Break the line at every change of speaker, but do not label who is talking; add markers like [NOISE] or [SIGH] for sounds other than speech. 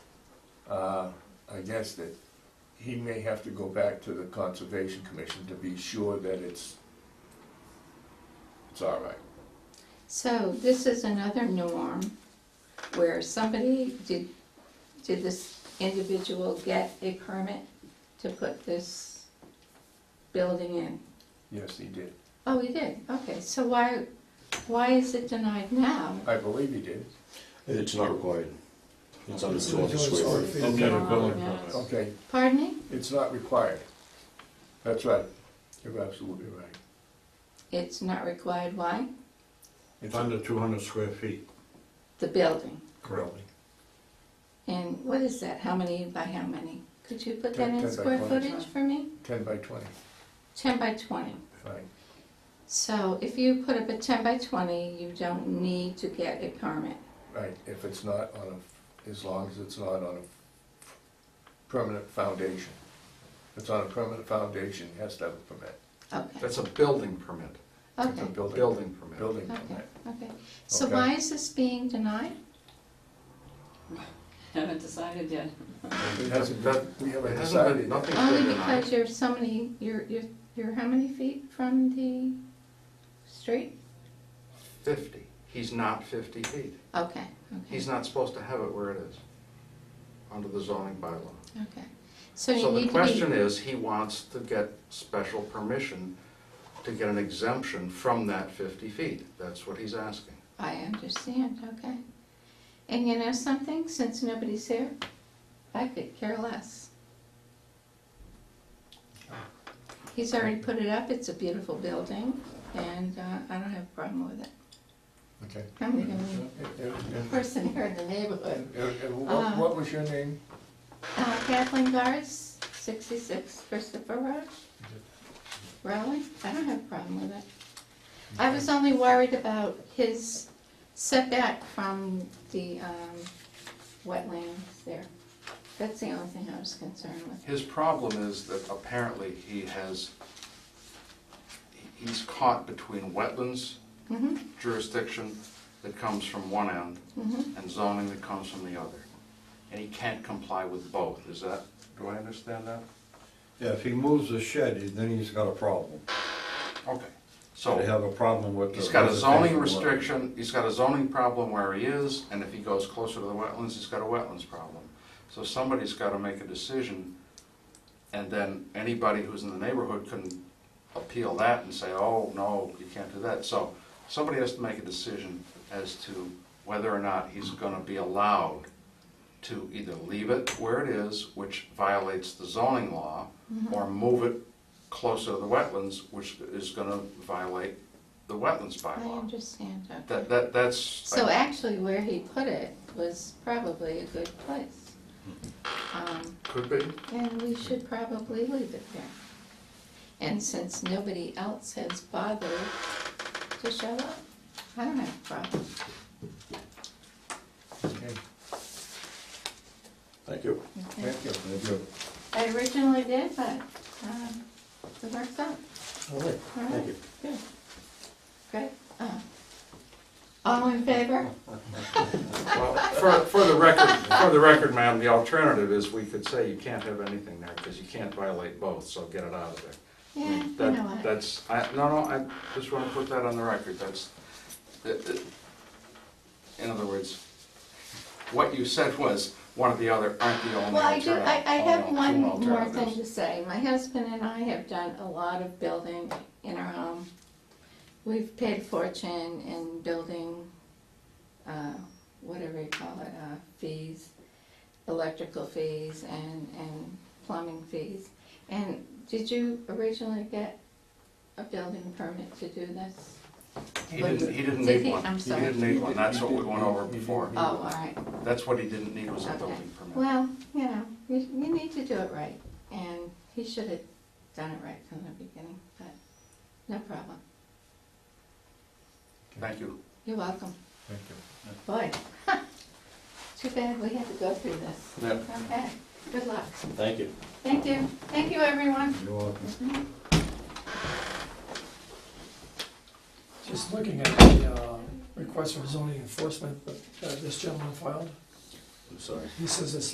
uh, against it, he may have to go back to the Conservation Commission to be sure that it's, it's all right.
So this is another norm where somebody, did, did this individual get a permit to put this building in?
Yes, he did.
Oh, he did, okay, so why, why is it denied now?
I believe he did.
It's not required. It's under
It's
the
under
office
square
waiver.
feet.
Okay,
Yeah.
building
Yeah.
permit.
Okay,
Pardon me?
it's not required. That's right. You're absolutely right.
It's not required, why?
It's
It's
under two hundred square feet.
The building,
Correct.
and what is that, how many by how many? Could you put
Ten-
that
ten
in
by
square
twenty.
footage for me?
Ten by twenty,
Ten by twenty.
right.
So if you put up a ten by twenty, you don't need to get a permit.
Right, if it's not on a, as long as it's not on a permanent foundation. If it's on a permanent foundation, it has to have a permit.
Okay,
That's a building permit,
It's a
okay,
building permit.
Building
okay,
permit.
okay. So
Okay.
why is this being denied?
Haven't decided yet.
It hasn't,
That-
we haven't
It hasn't been,
decided.
nothing's been
Only
denied.
because you're so many, you're, you're, you're how many feet from the street?
Fifty. He's not fifty feet.
Okay, okay,
He's not supposed to have it where it is, under the zoning bylaw.
okay. So you
So the
need to
question
be,
is, he wants to get special permission to get an exemption from that fifty feet. That's what he's asking.
I understand, okay. And you know something, since nobody's here, I could care less. He's already put it up, it's a beautiful building, and, uh, I don't have a problem with it.
Okay.
I'm the only
And- and- and-
person here in the neighborhood.
And, and what, what was your name?
Uh, Kathleen Gars, sixty-six Christopher Road. Rowley, I don't have a problem with it. I was only worried about his setback from the, um, wetlands there. That's the only thing I was concerned with.
His problem is that apparently he has, he's caught between wetlands
hmm
jurisdiction that comes from one end
hmm
and zoning that comes from the other. And he can't comply with both, is that, do I understand that?
Yeah, if he moves the shed, then he's got a problem.
Okay.
They
So,
have a problem with the.
he's got a zoning
residential one.
restriction, he's got a zoning problem where he is, and if he goes closer to the wetlands, he's got a wetlands problem. So somebody's gotta make a decision, and then anybody who's in the neighborhood can appeal that and say, oh, no, you can't do that. So, somebody has to make a decision as to whether or not he's gonna be allowed to either leave it where it is, which violates the zoning law,
Mm-hmm.
or move it closer to the wetlands, which is gonna violate the wetlands
I
bylaw.
understand, okay.
Uh, That, that, that's.
So [LAUGHS] actually where he put it was probably a good place. Um,
Could be.
And we should probably leave it there. And since nobody else has bothered to show up, I don't have a problem.
Okay,
Thank you.
okay?
Thank you.
Thank you.
I originally did, but, um, it worked out.
All right,
All
thank
right.
you.
Good. Great. Uh, All in favor?
Well, for, for the record, for the record, ma'am, the alternative is we could say you can't have anything there because you can't violate both, so get it out of there. I
Yeah,
mean,
you
that-
know what?
That's, I, no, no, I just want to put that on the record, that's, it- it- in other words, what you said was, one or the other aren't the only
Well, I do,
alternative.
I, I have
only
one
two
more thing
alternatives.
to say. My husband and I have done a lot of building in our home. We've paid a fortune in building, uh, whatever you call it, uh, fees, electrical fees and, and plumbing fees. And did you originally get a building permit to do this?
He didn't, he didn't
Did
need
he?
one,
I'm
he
sorry.
didn't need one, that's what we went over
He did- he did-
before,
Oh, all right.
that's what he didn't need was a
Okay.
building permit.
Well, you know, you, you need to do it right, and he should have done it right from the beginning, but no problem.
Thank you.
You're welcome.
Thank you.
Boy, [LAUGHS] too bad we had to go through this.
Yep.
Okay, good luck.
Thank you.
Thank you. Thank you, everyone.
You're welcome.
Just looking at the uh, request for zoning enforcement that uh, this gentleman filed,
I'm sorry.
he says it's